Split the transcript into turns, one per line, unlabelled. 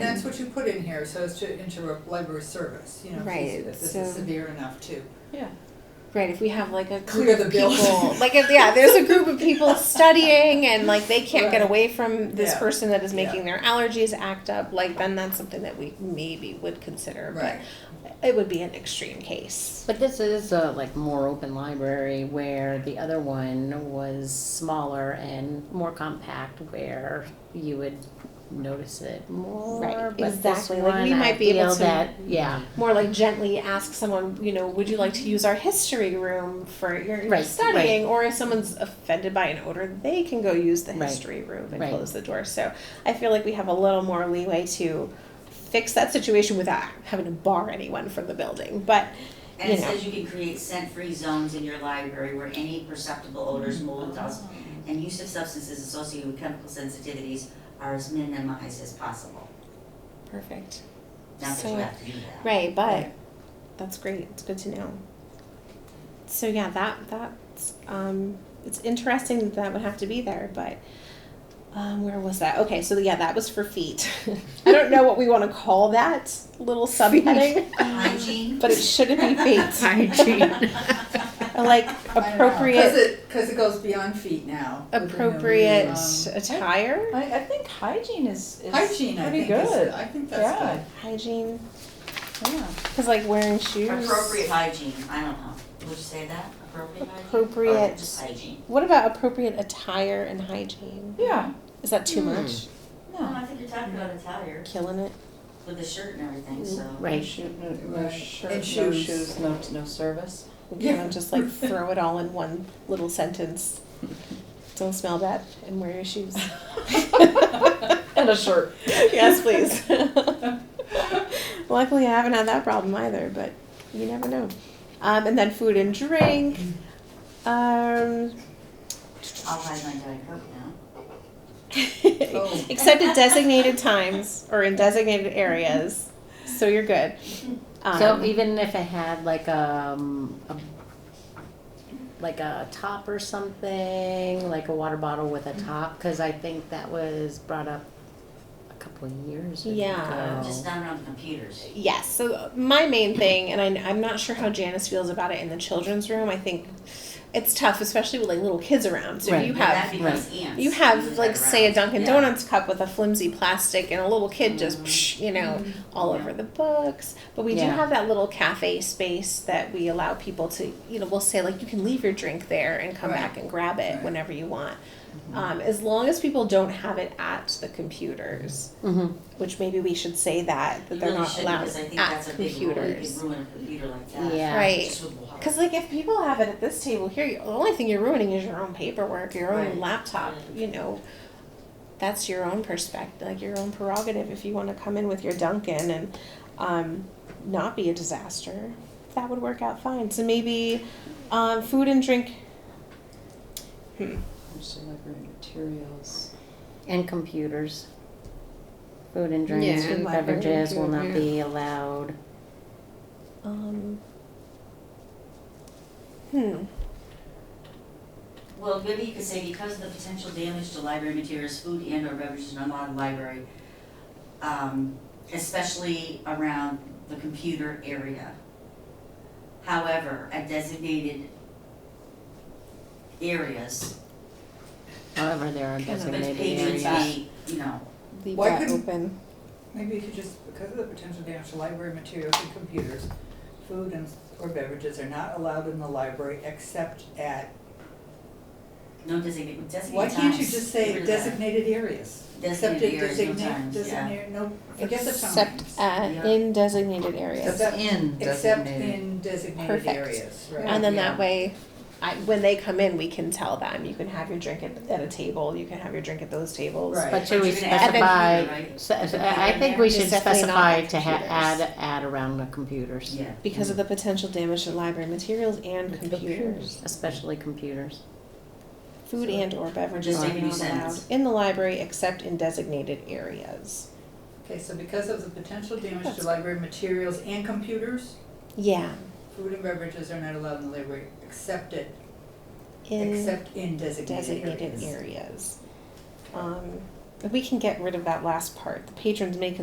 that's what you put in here, so as to interrupt library service, you know, if you see
Right,
that this
so-
is severe enough to.
Yeah.
Right, if we have like a
Clear
group
the
of
building.
people, like if yeah, there's a group of people studying and like they can't get
Right.
away from this
Yeah.
person that is
Yeah.
making their allergies act up, like then that's something that we maybe would consider.
Right,
But it would be an extreme case.
But this is a like more open library where the other one was smaller and more compact where you would notice it more.
Right,
but this
exactly. Like, we
one, I
might be able
feel
to-
that- Yeah,
More like gently ask someone, you know, would you like to use our history room for your
Right,
studying? Or if someone's offended by an odor, they can go use the
Right,
history room and
right.
close the door. So I feel like we have a little more leeway to fix that situation without having to bar anyone from the building. But
And it
you know.
says you can create scent-free zones in your library where any perceptible
Mm-hmm.
odors, mold, dust, and use of substances associated with chemical sensitivities are as minimized as possible.
Perfect.
Not that
So-
you have to do that.
Right, but
Right.
that's great. It's good to know. So yeah, that that's um, it's interesting that that would have to be there, but um, where was that? Okay, so yeah, that was for feet. I don't know what we want to call that little subheading,
Hygiene.
but it shouldn't be feet.
hygiene.
I like
I don't know, Cause
appropriate
it, cause it goes beyond feet now. with the new,
appropriate
um,
attire,
I, I think hygiene is, is
Hygiene, I
pretty
think is, uh,
good.
I think
Yeah.
that's
hygiene,
Yeah.
because like wearing shoes.
Appropriate hygiene, I don't know, would you say that, appropriate hygiene? Or
Appropriate.
just hygiene?
What about appropriate attire and hygiene?
Yeah.
Is that too
Hmm.
much?
No,
No.
I think you're talking about attire
Killing it.
with the shirt and everything, so.
Mm-hmm.
Right.
No,
no Right.
shirt,
And no shoes. shoes,
no, no service.
you know, just like throw it all in one little sentence. Don't smell bad and wear your shoes.
And a shirt.
yes, please. Luckily, I haven't had that problem either, but you never know. Um, and then food and drink. Um,
I'll hide my Diet Coke now.
Oh.
except at designated times or in designated areas. So you're good. Um,
So even if it had like um, a, like a top or something, like a water bottle with
Mm-hmm.
a top, because I think that was brought up a couple of years ago.
Yeah.
Just not around the computers.
Yes. So my main thing, and I, I'm not sure how Janice feels about it in the children's room. I think it's tough, especially with like little kids around. So
Right.
you
But
have
That becomes ants.
you
move
have
that
like say a
around.
Dunkin'
Yeah.
Donuts cup with a flimsy plastic, and a little kid just
Mhm.
psh, you know all
Yeah.
over the books. But we do
Yeah.
have that little cafe space that we allow people to you know we'll say like you can leave your drink there and come
Right.
back and grab it
Right.
whenever you want, um, as long as people don't have it at the computers
Mhm.
which maybe we should say that that
You
they're
really
not
shouldn't,
allowed
because I think
at
that's a big rule. You
computers.
could ruin a computer like that.
Yeah.
Right.
Just with water.
Because like if people have it at this table here, you- the only thing you're ruining is your own paperwork, your own
Right.
laptop.
Right.
You know, that's your own perspective, like your own prerogative. If you want to come in with your Duncan and um, not be a disaster, that would work out fine. So maybe um, food and drink.
Actually, library materials.
And computers. Food and drinks,
Yeah,
food
and
and
library and
beverages will
food,
not
yeah.
be allowed.
Um, hmm.
Well, maybe you could say because of the potential damage to library materials, food and or beverages in a modern library, um, especially around the computer area. However, at designated areas,
However, there are
Kind of
with
designated areas.
patrons may, you know,
Leave
Why
that
couldn't-
open.
good. Maybe you could just, because of the potential damage to library materials and computers, food and, or beverages are not allowed in the library except at,
no designated, designated times.
why can't you just say
Remember that.
designated areas?
Designated areas, no times, yeah.
Except at designated, no, forget the times.
Except at
Yeah.
in designated areas.
Except-
in
Except
designated.
in designated
Perfect.
areas, right?
And then
Yeah.
that way, I, when they come in, we can tell them, you can have your drink at, at a table, you can have your drink at those tables.
Right.
But should we
But you're gonna add the
specify,
computer, right?
so- so
The
I I
computer
think
in
we
there?
should
It's definitely not
specify
on
to ha-
computers.
add, add around the computers.
Yeah.
Because of the potential damage to library materials and computers.
Especially computers.
Food
So-
and or beverages
Just
are
make a new
not allowed
sentence.
in the library except in designated areas.
Okay, so because of the potential damage
That's-
to library materials and computers,
Yeah,
food and beverages are not allowed in the library except at,
in
except in designated areas.
designated areas. Um, if we can get rid of that last part, the patrons may